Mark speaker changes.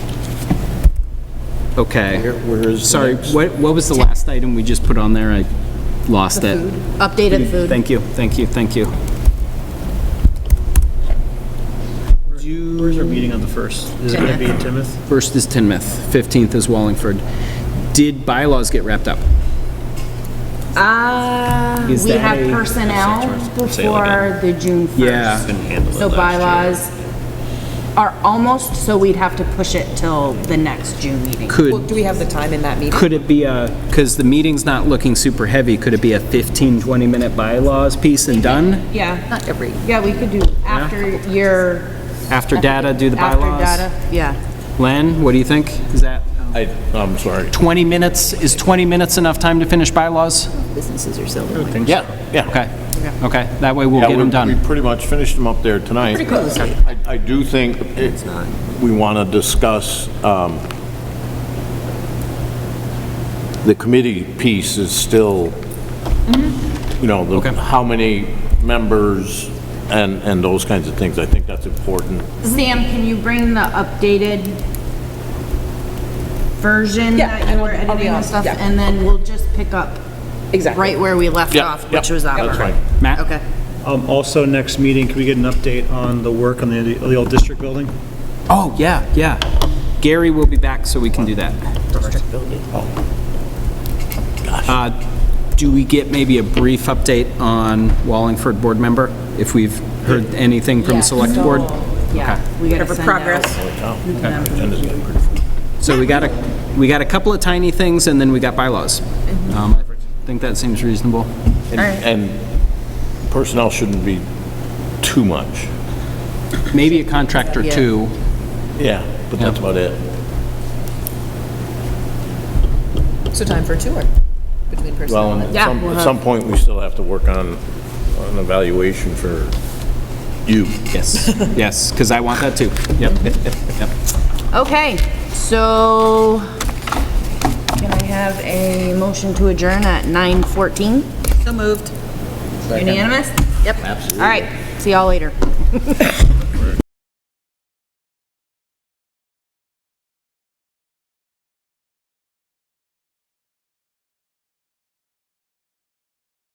Speaker 1: Okay.
Speaker 2: Where- where is the
Speaker 1: Sorry,
Speaker 2: next?
Speaker 1: what, what was the last item we just put on there? I lost it.
Speaker 3: Updated food.
Speaker 1: Thank you, thank you, thank you.
Speaker 4: Where's our meeting on the 1st? Is it going to be in Timoth?
Speaker 1: First is Tinmouth, 15th is Wallingford. Did bylaws get wrapped up?
Speaker 3: Uh,
Speaker 1: Is
Speaker 3: we
Speaker 1: that
Speaker 3: have
Speaker 1: a-
Speaker 3: personnel
Speaker 4: Say it like
Speaker 3: before the June 1st.
Speaker 1: Yeah.
Speaker 4: Couldn't handle it
Speaker 3: So bylaws
Speaker 4: last
Speaker 3: are almost, so we'd have to push it till the next June meeting.
Speaker 5: Well,
Speaker 1: Could,
Speaker 5: do we have the time in that meeting?
Speaker 1: could it be a, because the meeting's not looking super heavy, could it be a 15, 20-minute bylaws piece and done?
Speaker 3: Yeah,
Speaker 5: Not every.
Speaker 3: yeah, we could do after your.
Speaker 1: After data, do the bylaws?
Speaker 3: After data, yeah.
Speaker 1: Len, what do you think? Is that
Speaker 6: I, I'm sorry.
Speaker 1: 20 minutes, is 20 minutes enough time to finish bylaws?
Speaker 5: Businesses are selling. wine.
Speaker 6: Yeah, yeah.
Speaker 1: Okay, okay, that way we'll
Speaker 6: Yeah,
Speaker 1: get
Speaker 6: we-
Speaker 1: them done.
Speaker 6: We pretty much finished them up there tonight. Pretty close. I, I do think it- we want to discuss, um, the committee piece is still, you know,
Speaker 1: Okay.
Speaker 6: the, how many members and, and those kinds of things. I think that's important.
Speaker 3: Sam, can you bring the updated version
Speaker 5: Yeah,
Speaker 3: that
Speaker 5: I
Speaker 3: you
Speaker 5: will-
Speaker 3: were
Speaker 5: I'll be
Speaker 3: editing
Speaker 5: on,
Speaker 3: and stuff?
Speaker 5: yeah.
Speaker 3: And then we'll just pick up.
Speaker 5: Exactly.
Speaker 3: Right where we left
Speaker 6: Yeah,
Speaker 3: off,
Speaker 6: yeah,
Speaker 3: which was our.
Speaker 6: that's fine.
Speaker 1: Matt?
Speaker 3: Okay.
Speaker 4: Um, Also, next meeting, can we get an update on the work on the the old district building?
Speaker 1: Oh, yeah, yeah. Gary will be back, so we can do that. Uh, Do we get maybe a brief update on Wallingford board member, if we've heard anything from select
Speaker 3: so-
Speaker 1: board?
Speaker 3: Yeah, we gotta
Speaker 5: Whatever
Speaker 3: send out-
Speaker 5: progress.
Speaker 1: So we got a, we got a couple of tiny things, and then we got bylaws. Um, I think that seems reasonable.
Speaker 6: And and personnel shouldn't be too much.
Speaker 1: Maybe a contract or
Speaker 5: Yeah.
Speaker 1: two.
Speaker 6: Yeah, but that's about it.
Speaker 5: So time for a tour between personnel
Speaker 6: Well,
Speaker 5: and
Speaker 6: and
Speaker 3: Yeah,
Speaker 6: at some,
Speaker 3: we'll
Speaker 6: at
Speaker 3: have-
Speaker 6: some point, we still have to work on an evaluation for you.
Speaker 1: Yes, yes, because I want that too. Yep.
Speaker 3: Okay, so can I have a motion to adjourn at 9:14?
Speaker 5: So moved.
Speaker 3: Unanimous? Yep. Absolutely. All right, see y'all later.